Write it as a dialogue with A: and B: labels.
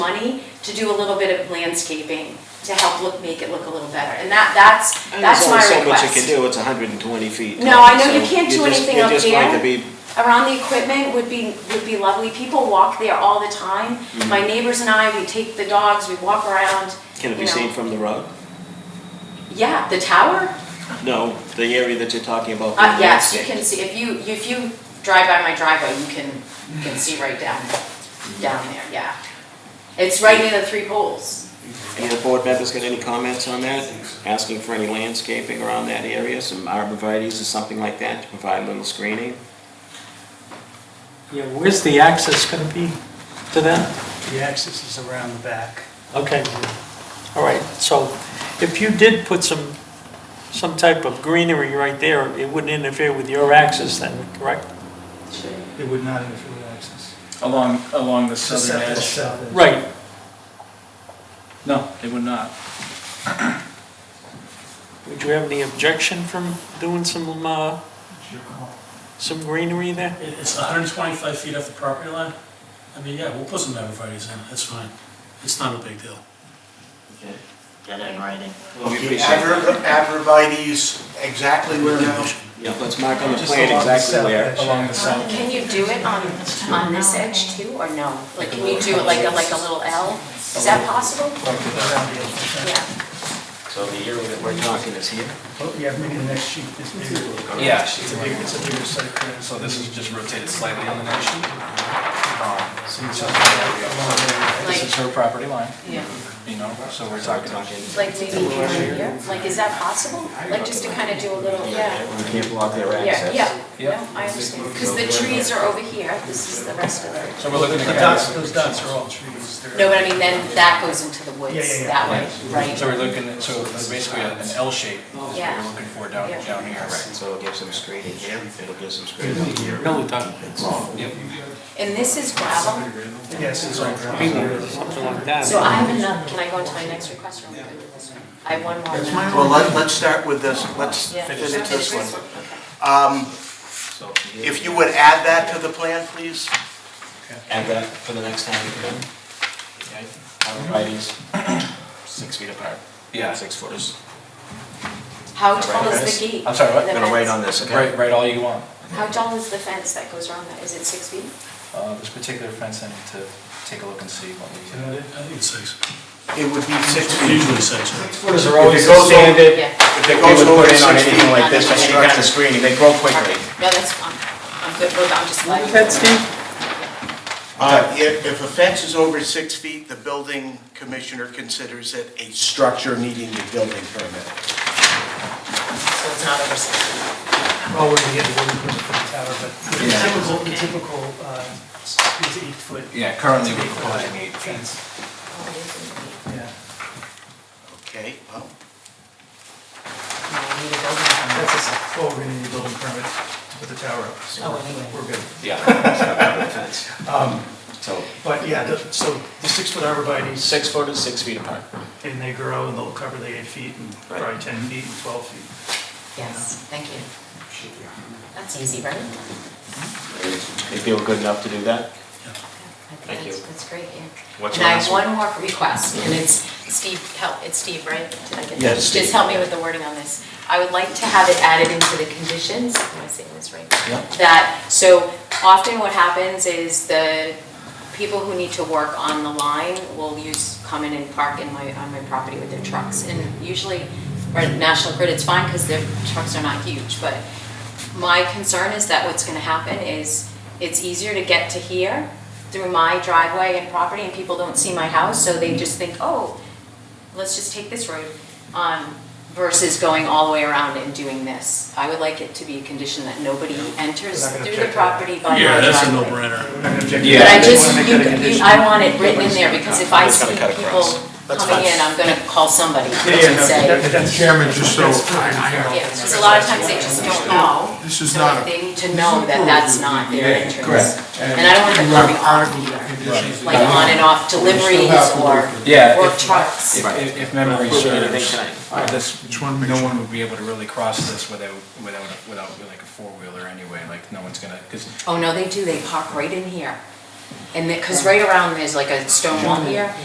A: money to do a little bit of landscaping to help look, make it look a little better. And that, that's,
B: And
A: that's my
B: There's only so much you can
A: request.
B: do, it's hundred and twenty feet.
A: No,
B: tall,
A: I know
B: so
A: you can't do
B: you're just-
A: anything
B: you're
A: up
B: just going
A: there.
B: to be-
A: Around the equipment would be, would be lovely. People walk there all the time.
B: Mm-hmm.
A: My neighbors and I, we take the dogs, we walk around.
B: Can it
A: you
B: be
A: know.
B: seen from the road?
A: Yeah, the tower,
B: No, the area that you're talking about.
A: Uh, yes,
B: being
A: you
B: landscaped.
A: can see, if you, if you drive by my driveway, you can, you can see right down, down there, yeah. It's right near the three poles.
B: Any of the board members got any comments on that? Asking for any landscaping around that area, some arborvitae's or something like that to provide a little screening?
C: Yeah, where's the access going to be to that?
D: The access is around the back.
C: Okay, all right, so if you did put some, some type of greenery right there, it wouldn't interfere with your access then, correct?
D: It would not interfere with access.
E: Along, along the
D: So
E: southern edge?
C: Right,
E: No, it would not.
C: would you have any objection from doing some, uh, some greenery there?
F: It- It's 125 feet off the property line. I mean, yeah, we'll put some evergreens in, that's fine. It's not a big deal.
G: Get it in writing.
B: We
H: Okay,
B: appreciate that.
H: Abra- Abrevieties, exactly where now?
B: Yeah, let's mark on the
D: Just
B: plan
D: along the
B: exactly
D: south
B: where.
D: edge.
E: Along the south,
A: Can you do it on, on this edge too, or no? Like, can you do it like a, like a little L? Is that possible?
D: Around the edge.
A: Yeah.
G: So the year that
B: We're talking is here.
D: Oh, yeah, maybe the next sheet is bigger.
I: Yeah,
D: It's a bigger, it's a bigger site plan.
I: so this is just rotated slightly on the next sheet. Um, So this is- this is her property line,
A: Yeah.
I: you know, so we're talking.
A: Like maybe right here? Like, is that possible? Like, just to kind of do a little, yeah.
B: We can't block their
A: Yeah,
B: access.
A: yeah,
I: Yep.
A: no, I understand. Because the trees are over here, this is the rest of it.
I: So we're looking
D: The
I: at.
D: dots, those dots are all trees. They're-
A: No, but I mean, then that goes into the
D: Yeah, yeah,
A: woods
D: yeah.
A: that way,
I: So
A: right?
I: we're looking, at- so it's basically an L shape is what
A: Yeah.
I: we're looking for down,
A: Yeah.
I: down here, right?
B: So it'll give some screening here, it'll give some screening here.
A: And this is gravel,
D: Yes, it's all gravel.
C: Something like that.
A: so I have enough, can I go into my next request real quick? I have one more. minute.
H: Well, let, let's start with this, let's
A: Yeah.
H: finish this one.
A: Okay.
H: Um, if you would add that to the plan, please?
B: Add that for the next time you come in. Okay. Arborvitae's, six feet apart.
I: Yeah.
B: Six footers.
A: How
B: Right,
A: tall is
B: guys?
A: the gate?
I: I'm sorry, what?
A: The
B: Gonna wait
A: fence?
B: on this, okay?
I: Right, right, all you want.
A: How tall is the fence that goes around that? Is it six feet?
I: Uh, This particular fence, I need to take a look and see what
D: You know,
I: we.
D: they-
F: I think it's six,
H: It would be six feet.
F: usually six.
I: Footers are
B: If it goes over,
A: Yeah.
B: if it goes
H: It goes
B: over
H: over
B: in on
H: six
B: anything
A: feet.
B: like this, but any kind of screening, they grow quickly.
A: No, that's, I'm, I'm good, Well, I'm just glad. you-
C: That, Steve?
H: Uh, if, if a fence is over six feet, the building commissioner considers it a structure needing a building permit.
A: So it's not over six feet.
D: Well, we're gonna get the wooden foot for the tower, but the typical, the typical, uh, is eight foot.
I: Yeah, currently we're
D: It's eight foot high
I: proposing eight feet.
D: fence.
A: Oh,
D: Yeah,
H: Okay, well,
D: that's a, well, we're gonna need a building permit to put the tower up, so we're- we're good.
B: Yeah. Um, So,
D: But yeah, the- so the six-foot arborvitae's,
B: six footers, six feet apart.
D: and they grow, and they'll cover the eight feet, and
B: Right.
D: probably 10 feet and 12 feet.
A: Yes, thank you. That's easy, right?
B: They feel good enough to do
A: I
B: that?
A: think
B: Thank you.
A: that's- That's great, yeah.
B: What's
A: And
B: your
A: I have
B: last one?
A: one more request, and it's Steve, help, it's Steve, right? Did I get that?
B: Yeah, it's Steve.
A: Just help me with the wording on this. I would like to have it added into the conditions, am I saying this right?
B: Yeah.
A: That, so often what happens is the people who need to work on the line will use, come in and park in my, on my property with their trucks. And usually, or National Grid, it's fine because their trucks are not huge, but my concern is that what's gonna happen is it's easier to get to here through my driveway and property and people don't see my house, so they just think, oh, let's just take this road, um, versus going all the way around and doing this. I would like it to be a condition that nobody enters
D: They're not gonna
A: through
D: check
A: the
D: that.
A: property by my driveway.
F: Yeah, that's a no-brainer.
D: We're not gonna object to
A: But
D: that.
A: I
D: They
A: just,
D: wanna make
A: you,
D: that a
A: you-
D: condition.
A: I want it written in there, because if I
B: Nobody's
A: see
B: gonna cut
A: people
B: across. That's
A: coming
B: fine.
A: in, I'm gonna call somebody
D: Yeah, yeah,
A: and
D: no,
A: say,
D: that- that's-
J: Chairman, just so
D: that's-
J: I know.
A: yeah, because a lot of times they just don't know.
J: This is
A: So
J: not a-
A: They need to know that that's not their entrance.
I: correct.
A: And I don't want them
J: You have
A: coming off
J: articles of
A: either,
J: conditions.
A: like on and off deliveries
J: have to
A: or,
J: work with
I: Yeah,
A: or
I: if-
A: trucks.
I: If- If, if memory
B: Approve it
I: serves,
B: anything tonight.
I: uh, this,
J: Just wanna make
I: no
J: sure.
I: one would be able to really cross this without, without, without like a four-wheeler anyway, like, no one's gonna, because
A: Oh, no, they do, they park right in here. And, because right around, there's like a stone wall here,